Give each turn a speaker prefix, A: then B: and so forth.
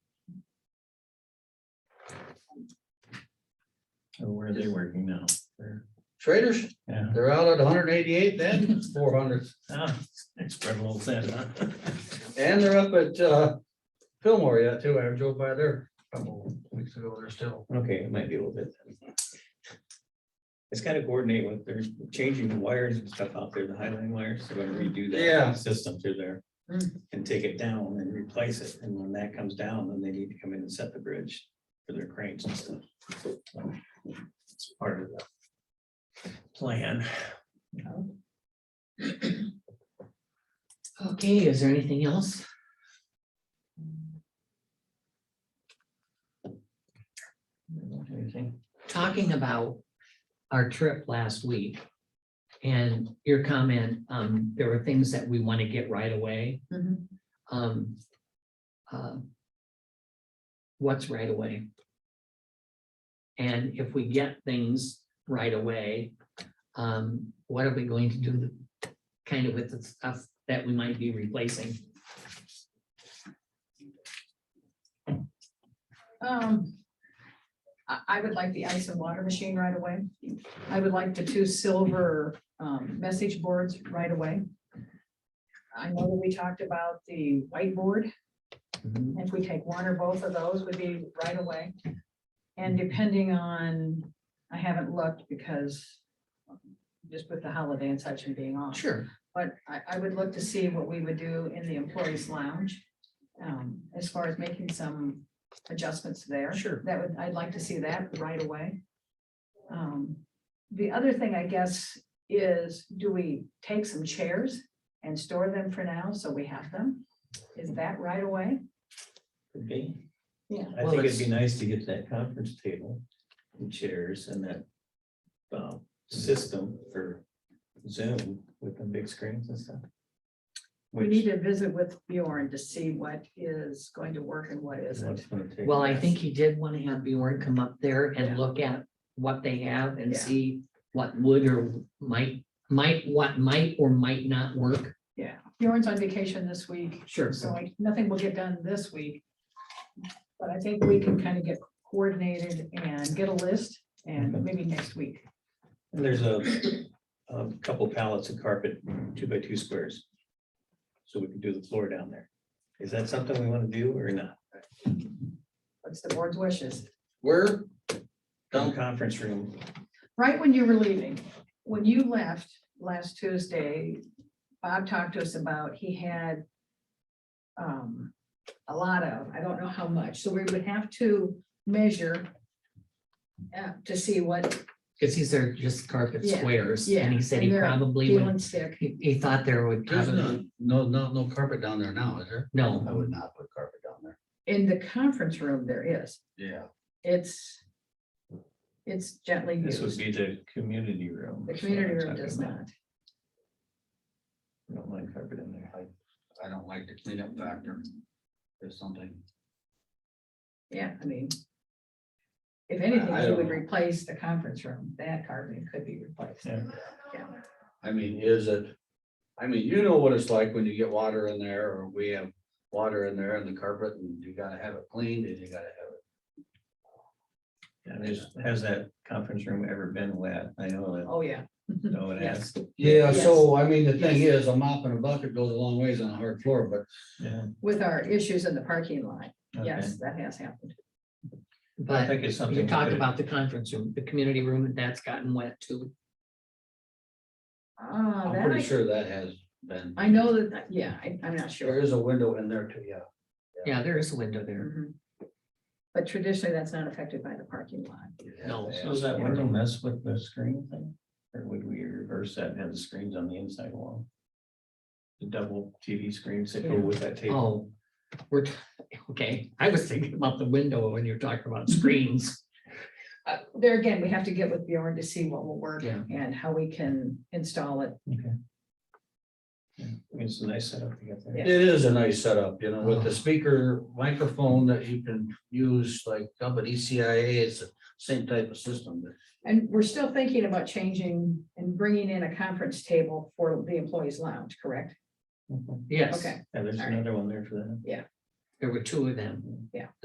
A: Oh, Where are they working now? They're-
B: Traders,
A: Yeah,
B: they're out at hundred and eighty-eight then, four hundred,
A: Ah, they spread a little thin, huh?
B: and they're up at, uh, Fillmore yet too. I drove by there a couple weeks ago. They're still.
C: Okay, it might be a little bit. It's gotta coordinate with, they're changing the wires and stuff out there, the highline wires, they're gonna redo that.
B: Yeah.
C: System through there and take it down and replace it. And when that comes down, then they need to come in and set the bridge for their cranes and stuff. It's part of the plan.
D: Okay, is there anything else?
C: Anything?
D: Talking about our trip last week. And your comment, um, there were things that we want to get right away.
E: Mhm.
D: Um. um, What's right away? And if we get things right away, um, what are we going to do? Kind of with the stuff that we might be replacing?
E: Um, I, I would like the ice and water machine right away. I would like the two silver, um, message boards right away. I know that we talked about the whiteboard.
C: Mm-hmm.
D: Mhm.
E: If we take one or both of those would be right away. And depending on, I haven't looked because just with the holiday and such and being off.
D: Sure.
E: But I, I would look to see what we would do in the employees lounge, um, as far as making some adjustments there.
D: Sure.
E: That would, I'd like to see that right away. Um, the other thing, I guess, is do we take some chairs and store them for now, so we have them? Is that right away?
C: Could be.
E: Yeah.
C: I think it'd be nice to get that conference table and chairs and that. Um, system for Zoom with the big screens and stuff.
E: We need
C: Which.
E: to visit with Bjorn to see what is going to work and what isn't.
D: Well, I think he did want to have Bjorn come up there
E: Yeah.
D: and look at what they have and
E: Yeah.
D: see what would or might, might, what might or might not work.
E: Yeah, Bjorn's on vacation this week.
D: Sure.
E: So I, nothing will get done this week. But I think we can kind of get coordinated and get a list and maybe next week.
C: And There's a, a couple pallets of carpet, two by two squares. So we can do the floor down there. Is that something we want to do or not?
E: What's the board's wishes?
B: Where?
C: Some conference room,
E: Right when you were leaving, when you left last Tuesday, Bob talked to us about, he had um, a lot of, I don't know how much, so we would have to measure uh, to see what
D: Because these are just carpet
E: Yeah,
D: squares and
E: yeah,
D: he said he
E: and they're
D: probably
E: peel
D: would,
E: and stick.
D: he, he thought there would
B: There's
D: probably,
B: no, no, no, no carpet down there now, is there?
D: no.
B: I would not put carpet down there.
E: In the conference room, there is.
B: Yeah.
E: It's, it's gently
C: this would
E: used.
C: be the community room.
E: The community room does not.
C: I Don't mind carpet in there.
B: I don't like the cleanup factor. There's something.
E: Yeah, I mean. If
B: I
E: anything, you
B: don't
E: would
B: know.
E: replace the conference room. That carpet could be replaced.
C: Yeah.
B: I mean, is it, I mean, you know what it's like when you get water in there, or we have water in there and the carpet, and you gotta have it cleaned, and you gotta have it.
C: And is, has that conference room ever been wet? I know
E: Oh, yeah.
C: that, no one has.
B: Yeah,
E: Yes.
B: so, I mean, the thing is, a mop and a bucket goes a long ways on a hard floor, but
C: Yeah.
E: With our issues in the parking lot.
C: okay.
E: Yes, that has happened.
C: I
D: But
C: think it's something.
D: you
C: we
D: talked
C: could-
D: about the conference room, the community room, that's gotten wet too.
E: Ah,
B: I'm
E: that
B: pretty
E: I,
B: sure that has been.
E: I know that, yeah, I, I'm not
B: There
E: sure.
B: is a window in there too, yeah.
D: Yeah, there is a window there.
E: Mhm. But traditionally, that's not affected by the parking lot.
B: You'd have
D: No,
B: to
C: So
B: ask.
C: does that window mess with the screen thing? Or would we reverse that and have the screens on the inside wall? The double TV screens that go with that table.
D: Oh, we're, t- okay. I was thinking about the window when you're talking about screens.
E: Uh, there again, we have to get with Bjorn to see what will work
D: Yeah.
E: and how we can install it.
C: Okay. Yeah, I mean, It's a nice setup to get there.
B: It is a nice setup, you know, with the speaker microphone that you can use, like, up at E ECIA, it's the same type of system. but
E: And we're still thinking about changing and bringing in a conference table for the employees lounge, correct?
C: Mhm.
D: Yes,
E: Okay,
C: Yeah, there's
E: All right.
C: another one there for that.
D: there were two of them.